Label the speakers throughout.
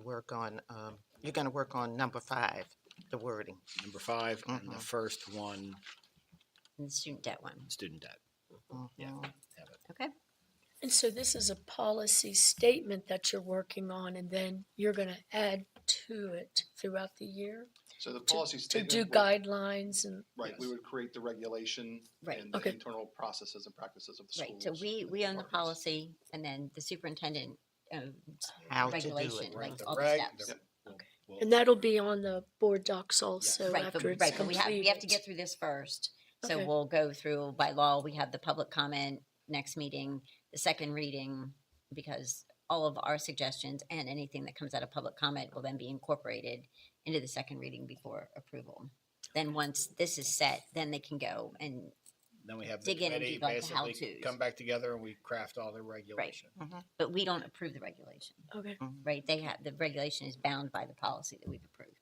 Speaker 1: work on, um, you're gonna work on number five, the wording.
Speaker 2: Number five, and the first one,
Speaker 3: and the student debt one.
Speaker 2: student debt. Yeah.
Speaker 1: Mhm.
Speaker 2: Have it.
Speaker 3: Okay.
Speaker 4: And so this is a policy statement that you're working on and then you're gonna add to it throughout the year?
Speaker 5: So the
Speaker 4: to-
Speaker 5: policy
Speaker 4: To
Speaker 5: statement.
Speaker 4: do
Speaker 5: would-
Speaker 4: guidelines and,
Speaker 5: Right, we
Speaker 2: Yes.
Speaker 5: would create the regulation
Speaker 3: Right.
Speaker 5: and the
Speaker 4: Okay.
Speaker 5: internal processes and practices of the
Speaker 3: Right,
Speaker 5: schools.
Speaker 3: so we,
Speaker 5: and
Speaker 3: we own the
Speaker 5: departments.
Speaker 3: policy and then the superintendent um, owns
Speaker 1: How to do
Speaker 3: regulation,
Speaker 1: it.
Speaker 3: like
Speaker 2: The
Speaker 3: all the
Speaker 2: reg-
Speaker 3: steps.
Speaker 2: the-
Speaker 5: Yep.
Speaker 2: we'll- we'll-
Speaker 4: and that'll be on the board docs also
Speaker 3: Right, but,
Speaker 4: after it's
Speaker 3: right, but we have, we have to
Speaker 4: completed.
Speaker 3: get through this first. So
Speaker 4: Okay.
Speaker 3: we'll go through, by law, we have the public comment next meeting, the second reading, because all of our suggestions and anything that comes out of public comment will then be incorporated into the second reading before approval. Then once this is set, then they can go and,
Speaker 2: Then we have the
Speaker 3: dig in and do
Speaker 2: committee
Speaker 3: like the
Speaker 2: basically
Speaker 3: how-tos.
Speaker 2: come back together and we craft all the regulation.
Speaker 3: but we don't approve the regulation,
Speaker 4: Okay,
Speaker 3: right? They have, the regulation is bound by the policy that we've approved.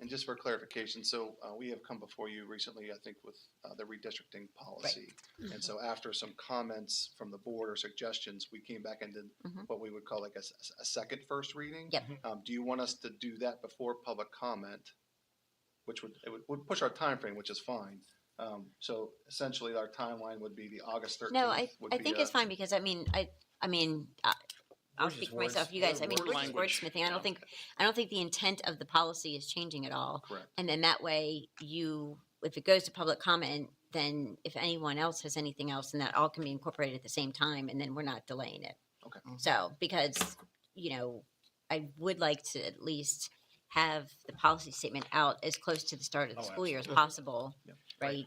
Speaker 5: And just for clarification, so uh, we have come before you recently, I think, with uh, the redistricting policy.
Speaker 3: Mm-hmm.
Speaker 5: And so after some comments from the board or suggestions, we came back and did
Speaker 3: Mhm.
Speaker 5: what we would call like a, s- a second first reading.
Speaker 3: Yep.
Speaker 5: Um, Do you want us to do that before public comment? Which would, it would- would push our time frame, which is fine. Um, So essentially, our timeline would be the August 13th.
Speaker 3: No, I,
Speaker 5: would
Speaker 3: I
Speaker 5: be
Speaker 3: think
Speaker 5: a-
Speaker 3: it's fine because I mean, I, I mean, I- I'll
Speaker 2: We're
Speaker 3: speak
Speaker 2: just
Speaker 3: for myself,
Speaker 2: words-
Speaker 3: you guys,
Speaker 2: we're
Speaker 3: I mean,
Speaker 2: word
Speaker 3: we're just
Speaker 2: language,
Speaker 3: wordsmithing. I
Speaker 2: yeah.
Speaker 3: don't think, I don't think the intent of the policy is changing at all.
Speaker 5: Correct.
Speaker 3: And then that way you, if it goes to public comment, then if anyone else has anything else, then that all can be incorporated at the same time and then we're not delaying it.
Speaker 5: Okay.
Speaker 1: Mhm.
Speaker 3: So, because, you know, I would like to at least have the policy statement out as close to the start of the
Speaker 2: Oh,
Speaker 3: school year as
Speaker 1: absolutely.
Speaker 3: possible,
Speaker 5: Yep. Right.
Speaker 3: right?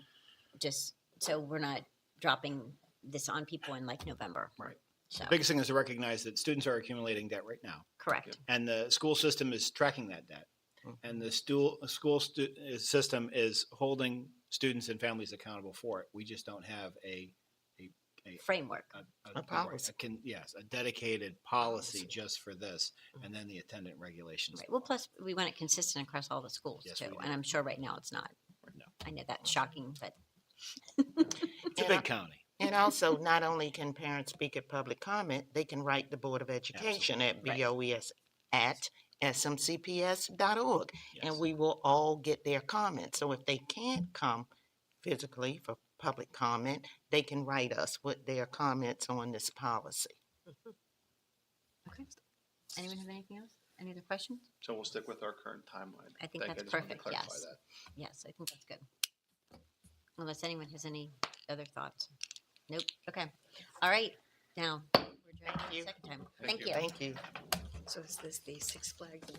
Speaker 3: Just so we're not dropping this on people in like November.
Speaker 5: Right.
Speaker 3: So,
Speaker 2: The Biggest thing is to recognize that students are accumulating debt right now.
Speaker 3: correct,
Speaker 2: and the school system is tracking that debt.
Speaker 1: Mhm.
Speaker 2: And the stool, school stu- uh, system is holding students and families accountable for it. We just don't have a,
Speaker 3: framework.
Speaker 2: a,
Speaker 1: A
Speaker 2: right,
Speaker 1: policy.
Speaker 2: can, yes, a dedicated policy
Speaker 1: Policy.
Speaker 2: just for this, and then the attendant regulations.
Speaker 3: Right. Well, plus we want it consistent across all the schools
Speaker 2: Yes,
Speaker 3: too,
Speaker 2: we do.
Speaker 3: and I'm sure right now it's not.
Speaker 2: No.
Speaker 3: I know that's shocking, but
Speaker 2: It's a
Speaker 1: And I-
Speaker 2: big county.
Speaker 1: And also, not only can parents speak at public comment, they can write the Board of Education at
Speaker 3: Right.
Speaker 1: BOES at smcps.org. And
Speaker 2: yes.
Speaker 1: we will all get their comments. So if they can't come physically for public comment, they can write us with their comments on this policy.
Speaker 3: okay. Anyone have anything else? Any other questions?
Speaker 5: So we'll stick with our current timeline.
Speaker 3: I think
Speaker 5: Thank
Speaker 3: that's
Speaker 5: you. just wanted to
Speaker 3: perfect,
Speaker 5: clarify
Speaker 3: yes.
Speaker 5: that.
Speaker 3: Yes, I think that's good. Unless anyone has any other thoughts. Nope. Okay. All right. Now. we're adjourned
Speaker 1: Thank
Speaker 3: for the
Speaker 1: you.
Speaker 3: Second time.
Speaker 5: Thank
Speaker 3: Thank
Speaker 5: you.
Speaker 3: you.
Speaker 1: Thank you.
Speaker 6: So is this the Six Flags?